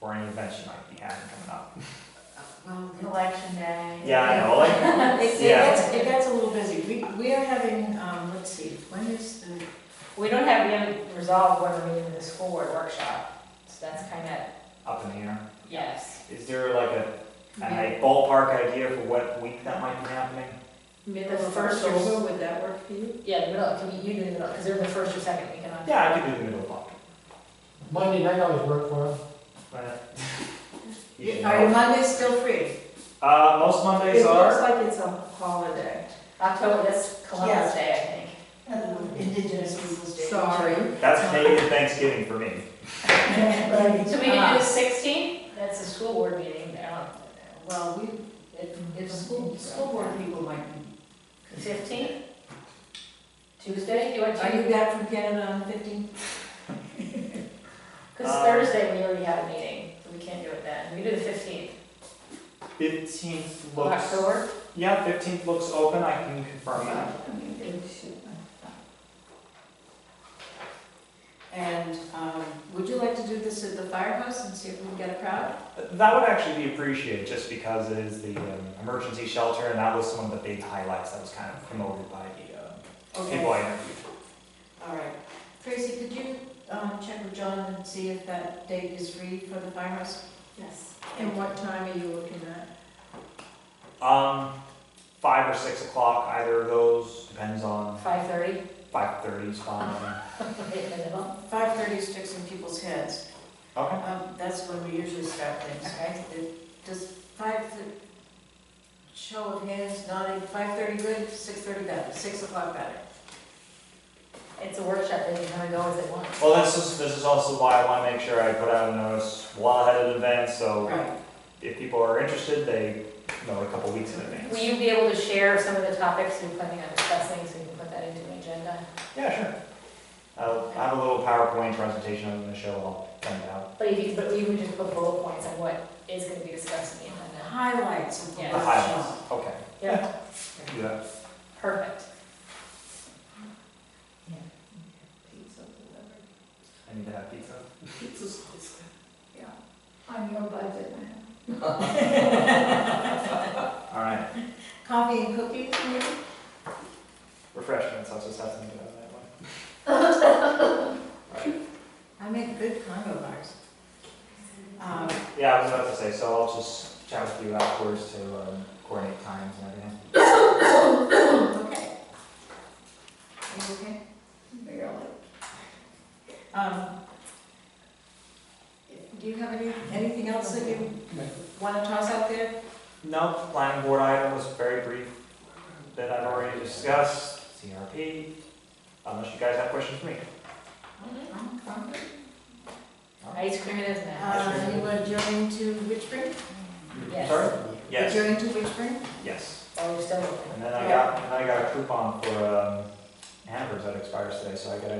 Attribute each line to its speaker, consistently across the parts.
Speaker 1: or any events you might be having coming up.
Speaker 2: Election day.
Speaker 1: Yeah, I know, like,
Speaker 3: It, it
Speaker 1: Yeah.
Speaker 3: gets, it gets a little busy. We, we are having, um, let's see, when is the,
Speaker 2: We don't have yet resolved whether we're doing the school board workshop, so that's kind of,
Speaker 1: up in the air.
Speaker 2: yes.
Speaker 1: Is there like a, a ballpark idea for what week that might be happening?
Speaker 3: the
Speaker 2: Middle
Speaker 3: first or so, would that work for you?
Speaker 2: Yeah, the middle, it can be, you do the middle, because they're the first or second week in October.
Speaker 1: Yeah, I could do the middle of October.
Speaker 4: Monday night always worked for us.
Speaker 1: but- You should
Speaker 3: Are your
Speaker 1: know.
Speaker 3: Mondays still free?
Speaker 1: Uh, most Mondays
Speaker 3: It looks
Speaker 1: are,
Speaker 3: like it's a holiday.
Speaker 2: October, that's Columbus Day, I think.
Speaker 5: Indigenous Peoples' Day.
Speaker 3: Sorry.
Speaker 1: that's Canadian Thanksgiving for me.
Speaker 2: So we can do the sixteenth, that's a school board meeting, I don't,
Speaker 5: Well, we,
Speaker 2: it,
Speaker 5: if
Speaker 2: it's
Speaker 5: school, school board people might be.
Speaker 2: Fifteenth? Tuesday, you want
Speaker 3: Are
Speaker 2: to,
Speaker 3: you back from Canada on the fifteenth?
Speaker 2: because
Speaker 1: Um,
Speaker 2: Thursday we already have a meeting, so we can't do it then, we do the fifteenth.
Speaker 1: Fifteenth looks,
Speaker 2: October?
Speaker 1: yeah, fifteenth looks open, I can confirm that.
Speaker 3: And, um, would you like to do this at the firehouse and see if we can get a crowd?
Speaker 1: That would actually be appreciated, just because it is the um, emergency shelter, and that was one of the big highlights that was kind of promoted by the uh, people
Speaker 3: Okay,
Speaker 1: I interviewed.
Speaker 3: all right. Tracy, could you, um, check with John and see if that date is free for the firehouse?
Speaker 2: Yes.
Speaker 3: And what time are you looking at?
Speaker 1: Um, five or six o'clock, either of those, depends on,
Speaker 2: Five thirty,
Speaker 1: five thirty is fine.
Speaker 2: in the middle,
Speaker 3: Five thirty sticks in people's heads.
Speaker 1: Okay.
Speaker 3: Um, that's when we usually start things.
Speaker 2: okay?
Speaker 3: It- Does five, th- show of hands, nodding, five thirty good, six thirty better, six o'clock better?
Speaker 2: It's a workshop, they can kind of go as they want.
Speaker 1: Well, this is, this is also why I wanna make sure I put out a notice well ahead of the event, so
Speaker 3: Right.
Speaker 1: if people are interested, they know a couple weeks in advance.
Speaker 2: Will you be able to share some of the topics you're planning on discussing, so we can put that into the agenda?
Speaker 1: Yeah, sure. I'll I have a little PowerPoint presentation I'm gonna show, I'll send it out.
Speaker 2: But if you, but we would just put bullet points on what is gonna be discussed in the agenda.
Speaker 3: Highlights of the
Speaker 2: Yeah.
Speaker 1: The
Speaker 3: workshop.
Speaker 1: highlights, okay.
Speaker 2: Yeah,
Speaker 1: Do that.
Speaker 2: perfect.
Speaker 1: I need to have pizza.
Speaker 5: On your budget, man.
Speaker 1: All right,
Speaker 3: Coffee and cookies, maybe?
Speaker 1: refreshments, I'll just have to do that one.
Speaker 3: I make good combo bars. Um,
Speaker 1: Yeah, I was about to say, so I'll just chat with you afterwards to um, coordinate times and everything.
Speaker 3: okay. Are you okay? Um, do you have any, anything else that you wanna toss out there?
Speaker 1: No, planning board item was very brief that I've already discussed, CRP, unless you guys have questions for me.
Speaker 3: I'm fine.
Speaker 2: Mm-hmm. Ice cream it is now.
Speaker 3: Uh, you want to join to Witchburn?
Speaker 2: Yes.
Speaker 1: Sorry? Yes,
Speaker 3: Join to Witchburn?
Speaker 1: yes.
Speaker 2: Oh, we're still looking.
Speaker 1: And then I got, and then I got a coupon for um, hampers that expires today, so I gotta.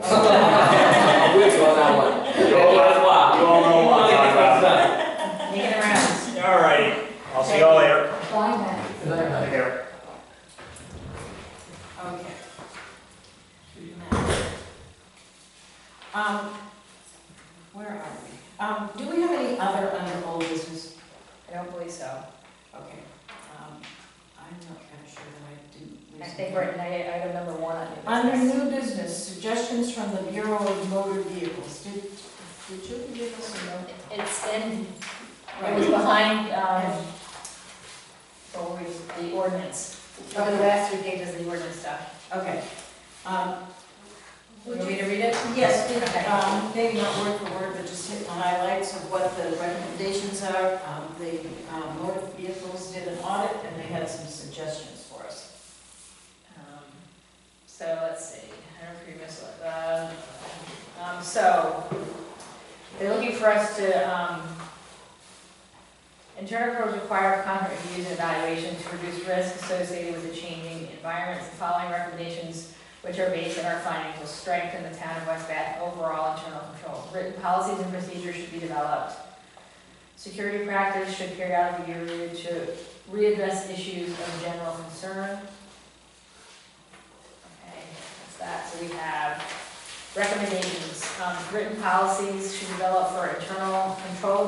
Speaker 4: Which one, that one?
Speaker 1: You all know- you all know what I'm talking about.
Speaker 2: Making the rounds.
Speaker 1: All right, I'll see y'all later.
Speaker 5: Why not?
Speaker 1: Take care.
Speaker 3: Okay. Um, where are we? Um, do we have any other under old business?
Speaker 2: I don't believe so.
Speaker 3: Okay, um, I'm not kind of sure that I didn't. lose
Speaker 2: I think we're at night, item number one on the
Speaker 3: Under
Speaker 2: business.
Speaker 3: new business, suggestions from the Bureau of Motor Vehicles. Did, did you give us a note?
Speaker 2: It's in, it was behind, um, what were we- the ordinance. Over the last three pages of the ordinance stuff.
Speaker 3: Okay. Um,
Speaker 2: You
Speaker 3: would
Speaker 2: want
Speaker 3: you
Speaker 2: me to read it?
Speaker 3: Yes, we-
Speaker 2: Okay.
Speaker 3: um, maybe not word for word, but just hit the highlights of what the recommendations are. Um, The um, motor vehicles did an audit and they had some suggestions for us.
Speaker 2: Um, So let's see, I don't know if you missed it. Uh, um, So they're looking for us to, um, internal controls require contract reviews and evaluation to reduce risks associated with the changing environments. The following recommendations, which are based on our findings, will strengthen the town of West Bath overall internal controls. Written policies and procedures should be developed. Security practice should periodically be reviewed to readdress issues of general concern. Okay, that's that, so we have recommendations, um, written policies should develop for internal control